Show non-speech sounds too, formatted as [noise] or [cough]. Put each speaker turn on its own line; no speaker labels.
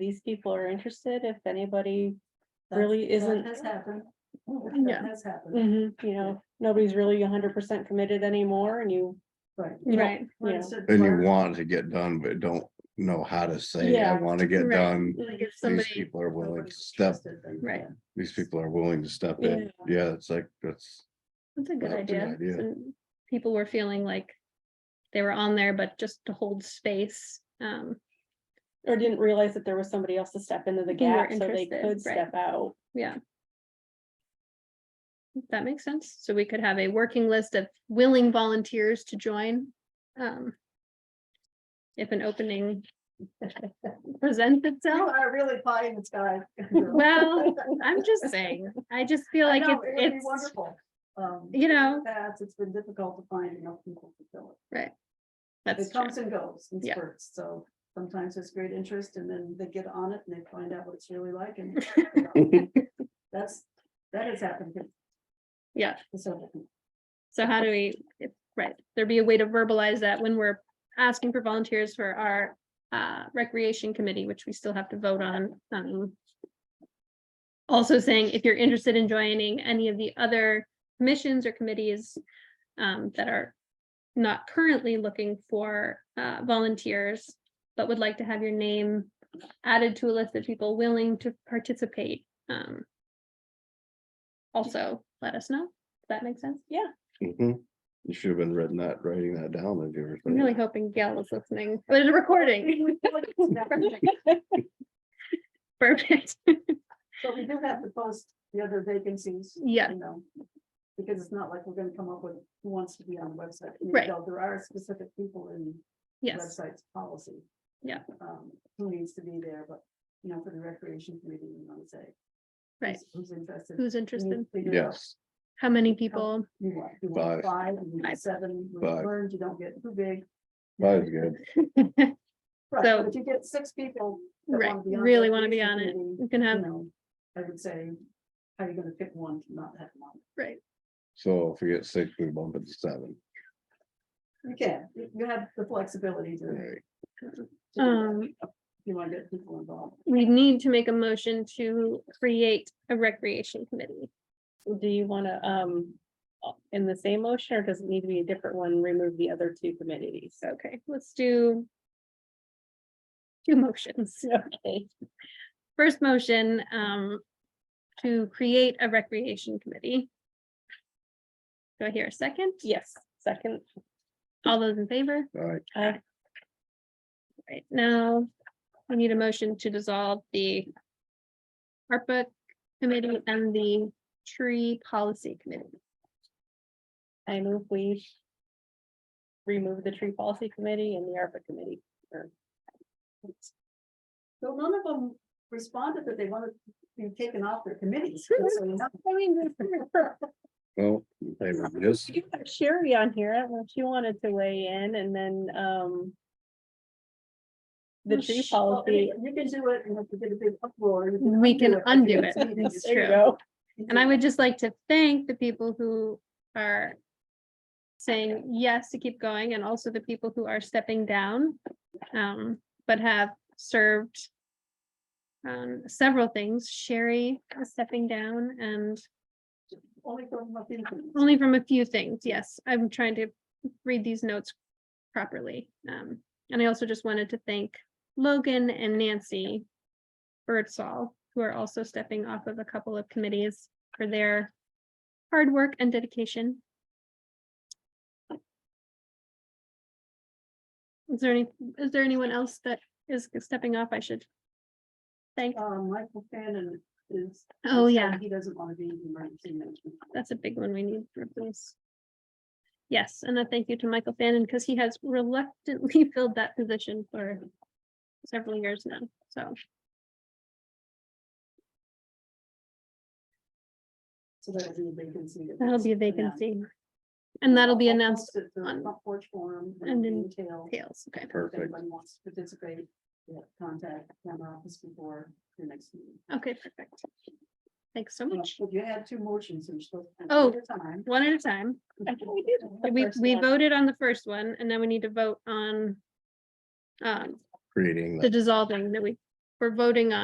these people are interested, if anybody
That-
really
that
isn't-
Has happened. Oh,
Yeah.
That has happened,
Mm-hmm.
you know, nobody's really hundred percent committed anymore and you.
Mm-hmm.
right.
you don't-
Right.
you know,
Once it
And you
worked,
want to get done, but don't know how to say, I
Yeah,
want to get
right.
done.
Like if
These
somebody,
people are willing to
nobody's
step,
interested, then,
Right.
yeah.
these people are willing to step in. Yeah, it's like, that's,
that's a good
That's a good
idea.
idea.
So People were feeling like they were on there, but just to hold space. Um,
Or didn't realize that there was somebody else to step into the
Who were
gap, so they
interested,
could
right.
step
[laughs]
out.
yeah. That makes sense. So we could have a working list of willing volunteers to join. Um. If an opening [laughs] presents
You
itself,
are really pie in the [laughs] sky.
[laughs] well, I'm just saying, I just feel like
No, it would
it's,
be
it's,
Wonderful. Um,
you know,
That's, it's been difficult to find enough people to fill it.
that's
It
true.
comes and goes in
Yeah.
spurts, so sometimes there's great interest and then they get on it and they find out what it's really like
[laughs]
and. That's, that has happened. to-
Yeah.
to several people.
So how do we, if- right, there be a way to verbalize that when we're asking for volunteers for our uh recreation committee, which we still have to vote on. um, Also saying if you're interested in joining any of the other commissions or committees um that are not currently looking for uh volunteers, but would like to have your name added to a list of people willing to participate. um, Also, let us know. Does that make sense?
mhm. you should have been writing that, writing that down if you were.
I'm really hoping Gail was listening. Oh, There's a [laughs] recording. Perfect.
So we do have to post the other vacancies.
[laughs] Yeah.
You know, because it's not like we're gonna come up with who wants to be on the website. I mean,
Right.
though There are specific people in
Yes,
websites policy.
Yeah.
Um, who needs to be there, but, you know, for the recreation committee, you want to say.
right.
who's- Who's interested.
Who's
You need to
interested?
figure out
Yes,
How many people?
You want, you want
Five.
five, you want
Five.
seven, you
Five.
learned, you don't get too big.
that is good.
We
Right,
So-
but if you get six people. that
Right,
wanna be on
really wanna be
recreation
on it.
committee,
can
You
have,
know, I would say, how are you gonna pick one to not have one?
right,
So if we get six, we bump it to seven.
You can, you you have the flexibility to. to
Right.
do that
um,
if You wanna get people involved.
we need to make a motion to create a recreation committee.
Do you wanna, um, in the same motion, or does it need to be a different one, remove the other two committees?
Okay, let's do two [laughs] motions.
Okay,
First motion, um, to create a recreation committee. Do I hear a second?
yes, second,
All those in favor?
All right,
I,
Right now, we need a motion to dissolve the ARPA committee and the tree policy committee.
I move we. Remove the tree policy committee and the ARPA committee.
So none of them responded that they wanted to be taken off their committees.
[laughs]
just so you know.
I mean,
well, they were just,
You got Sherry on here, I don't know if she wanted to weigh in and then, um. The
Well,
tree
sh-
Well, I
policy.
mean, You can do it and if you get a big uproar. you
We can undo
but
it.
you can
That's
just-
There you
true.
go.
you
And I
can-
would just like to thank the people who are saying yes to keep going and also the people who are stepping down, um, but have served um, several things. Sherry is stepping down and
Only from my opinion.
Only from a few things, yes. I'm trying to read these notes properly. Um, and I also just wanted to thank Logan and Nancy Birdsall, who are also stepping off of a couple of committees for their hard work and dedication. Is there any, is there anyone else that is stepping off I should thank?
Um, Michael Fannin is.
Oh,
is saying
yeah.
He doesn't want to be in emergency management.
that's a big one we need to replace. Yes, and a thank you to Michael Fannin because he has reluctantly [laughs] filled that position for several years now, so.
So that'll be a vacancy. that
That'll
was
be a
announced.
vacancy. And that'll be
I'll
announced
post it to the
on-
Front porch forum.
and in-
detail.
tails, okay,
If
perfect.
anybody wants to participate, you have to contact town office before the next meeting.
okay, perfect. Thanks so
Well,
much,
If you had two motions, you're supposed. to
Oh.
take your time.
one at a time.
I think we did the
We,
first
we
one.
voted on the first one and then we need to vote on um,
creating
the
that.
dissolving that we we're voting on.